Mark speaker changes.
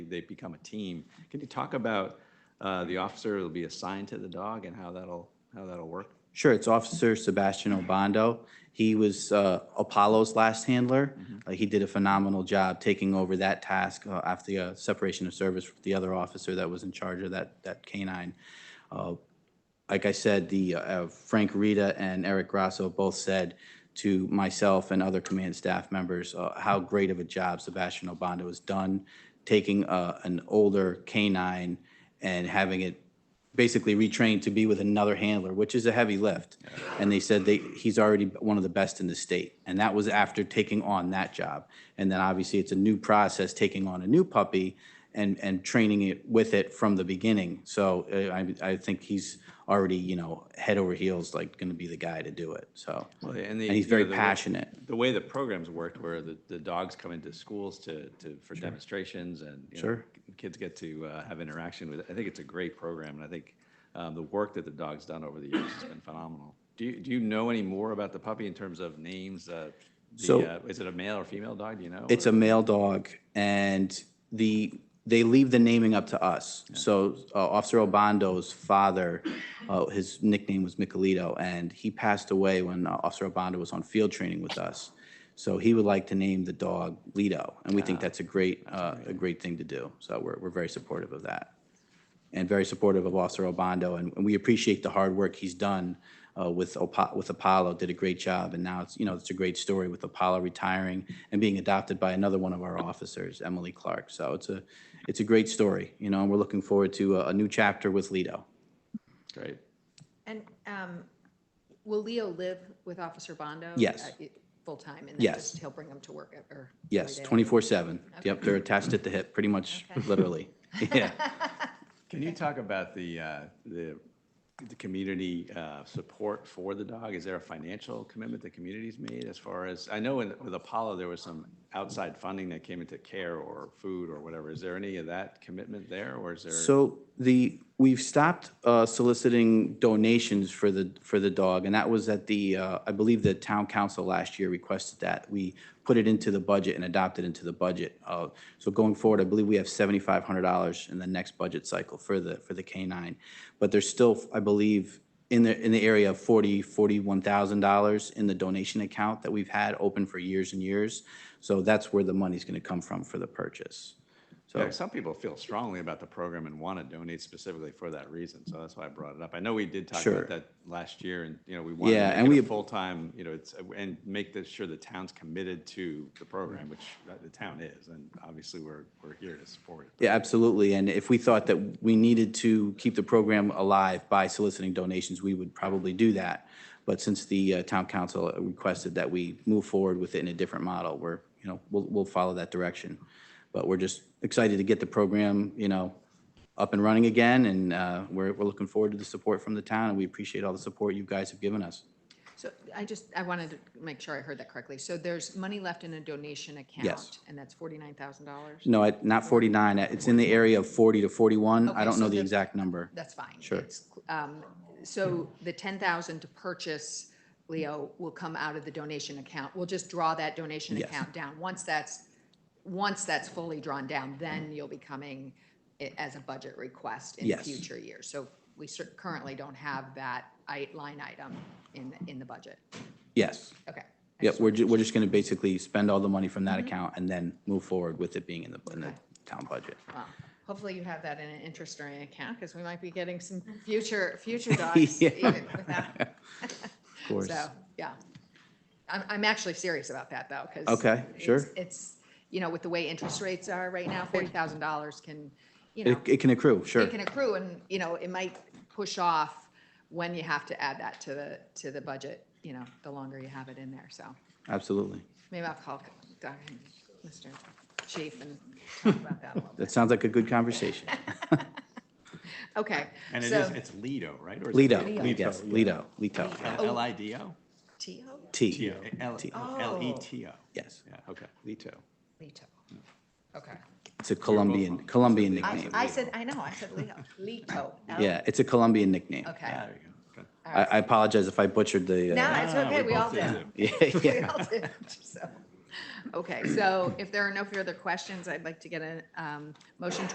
Speaker 1: they become a team. Can you talk about uh, the officer that'll be assigned to the dog and how that'll, how that'll work?
Speaker 2: Sure, it's Officer Sebastian Obando. He was uh, Apollo's last handler. Uh, He did a phenomenal job taking over that task uh, after the uh, separation of service with the other officer that was in charge of that, that canine. Uh, Like I said, the uh, Frank Rita and Eric Grasso both said to myself and other command staff members uh, how great of a job Sebastian Obando has done, taking uh, an older canine and having it basically retrained to be with another handler, which is a heavy lift. And they said they, he's already one of the best in the state. And that was after taking on that job. And then obviously it's a new process, taking on a new puppy and, and training it with it from the beginning. So uh, I, I think he's already, you know, head over heels, like going to be the guy to do it. So,
Speaker 1: And
Speaker 2: and he's very passionate.
Speaker 1: The way the programs worked, where the, the dogs come into schools to, to, for demonstrations and, you know,
Speaker 2: Sure.
Speaker 1: kids get to uh, have interaction with, it. I think it's a great program, and I think um, the work that the dog's done over the years has been phenomenal. Do you, do you know any more about the puppy in terms of names? uh, the,
Speaker 2: So-
Speaker 1: uh, Is it a male or female dog, do you know?
Speaker 2: It's a male dog, and the, they leave the naming up to us. So uh, Officer Obando's father, uh, his nickname was Michelito, and he passed away when uh, Officer Obando was on field training with us. So he would like to name the dog Lito, and we think that's a great, uh, a great thing to do. So we're, we're very supportive of that and very supportive of Officer Obando, and and we appreciate the hard work he's done uh, with Opa- with Apollo, did a great job, and now it's, you know, it's a great story with Apollo retiring and being adopted by another one of our officers, Emily Clark. So it's a, it's a great story, you know, and we're looking forward to a a new chapter with Lido.
Speaker 1: Great.
Speaker 3: And um, will Leo live with Officer Bondo?
Speaker 2: Yes.
Speaker 3: uh, it- Full-time? and then
Speaker 2: Yes.
Speaker 3: just He'll bring him to work e, or- or? every
Speaker 2: Yes,
Speaker 3: day?
Speaker 2: 24/7. Yep, they're attached at the hip, pretty much,
Speaker 3: Okay.
Speaker 2: literally. Yeah.
Speaker 1: Can you talk about the, uh, the, the community uh, support for the dog? Is there a financial commitment the community's made as far as, I know in- with Apollo, there was some outside funding that came into care or food or whatever. Is there any of that commitment there, or is there?
Speaker 2: So the, we've stopped uh, soliciting donations for the, for the dog, and that was at the, uh, I believe the town council last year requested that. We put it into the budget and adopted into the budget. Uh, So going forward, I believe we have seventy-five hundred dollars in the next budget cycle for the, for the canine. But there's still, I believe, in the, in the area of forty, forty-one thousand dollars in the donation account that we've had open for years and years. So that's where the money's gonna come from for the purchase.
Speaker 1: Yeah, Some people feel strongly about the program and want to donate specifically for that reason, so that's why I brought it up. I know we did talk
Speaker 2: Sure.
Speaker 1: about that last year, and, you know, we wanted
Speaker 2: Yeah,
Speaker 1: to
Speaker 2: and
Speaker 1: make it a
Speaker 2: we-
Speaker 1: full-time, you know, it's, and make this sure the town's committed to the program, which the town is, and obviously, we're, we're here to support it.
Speaker 2: Yeah, absolutely. And if we thought that we needed to keep the program alive by soliciting donations, we would probably do that. But since the uh, town council requested that we move forward with it in a different model, we're, you know, we'll, we'll follow that direction. But we're just excited to get the program, you know, up and running again, and uh, we're, we're looking forward to the support from the town, and we appreciate all the support you guys have given us.
Speaker 3: So I just, I wanted to make sure I heard that correctly. So there's money left in a donation account? And that's $49,000?
Speaker 2: No, at- not 49, it's in the area of 40 to 41. I
Speaker 3: Okay,
Speaker 2: don't
Speaker 3: so
Speaker 2: know the
Speaker 3: the-
Speaker 2: exact number.
Speaker 3: That's fine.
Speaker 2: Sure.
Speaker 3: It's, um, So the 10,000 to purchase Leo will come out of the donation account. We'll just draw that donation
Speaker 2: Yes.
Speaker 3: account down. Once that's, once that's fully drawn down, then you'll be coming i- as a budget request in
Speaker 2: Yes.
Speaker 3: future years. So we cer- currently don't have that i- line item in, in the budget.
Speaker 2: Yes.
Speaker 3: Okay. I
Speaker 2: Yeah,
Speaker 3: just-
Speaker 2: we're, ju- we're just gonna basically spend all the money from that account and then move forward with it being in the, in the
Speaker 3: Okay.
Speaker 2: town budget.
Speaker 3: well, Hopefully you have that in an interest-bearing account because we might be getting some future, future dogs
Speaker 2: Yeah.
Speaker 3: even without
Speaker 2: Of course.
Speaker 3: So, yeah. I'm, I'm actually serious about that, though, because.
Speaker 2: Okay, sure.
Speaker 3: It's, you know, with the way interest rates are right now, forty thousand dollars can, you
Speaker 2: It,
Speaker 3: know,
Speaker 2: it can accrue, sure.
Speaker 3: it can accrue, and, you know, it might push off when you have to add that to the, to the budget, you know, the longer you have it in there, so.
Speaker 2: Absolutely.
Speaker 3: Maybe I'll call Doc and Mr. Chief and talk about that a little bit.
Speaker 2: That sounds like a good conversation.
Speaker 3: Okay.
Speaker 1: And it
Speaker 3: so-
Speaker 1: is, it's Lido, right? Or is it
Speaker 2: Lido,
Speaker 3: Lido.
Speaker 2: I guess, Lido, Lito, yeah.
Speaker 1: L- L-I-D-O?
Speaker 3: Tio?
Speaker 2: T,
Speaker 1: L-
Speaker 2: T.
Speaker 1: L-E-T-O.
Speaker 2: yes.
Speaker 1: Yeah, okay, Lito.
Speaker 3: Lito.
Speaker 1: Mm.
Speaker 3: Okay.
Speaker 2: It's a Colombian, Colombian
Speaker 3: I,
Speaker 2: nickname.
Speaker 3: I said, I know, I said Leo, Lito. L-
Speaker 2: Yeah, it's a Colombian nickname.
Speaker 3: Okay.
Speaker 1: Yeah, There you go. Okay.
Speaker 2: I, I apologize if I butchered the. uh,
Speaker 3: No, it's
Speaker 1: Ah,
Speaker 3: okay, we all
Speaker 1: both did
Speaker 3: do.
Speaker 1: it.
Speaker 2: Yeah,
Speaker 3: We
Speaker 2: yeah.
Speaker 3: all do, so. Okay, so if there are no further questions, I'd like to get a um, motion to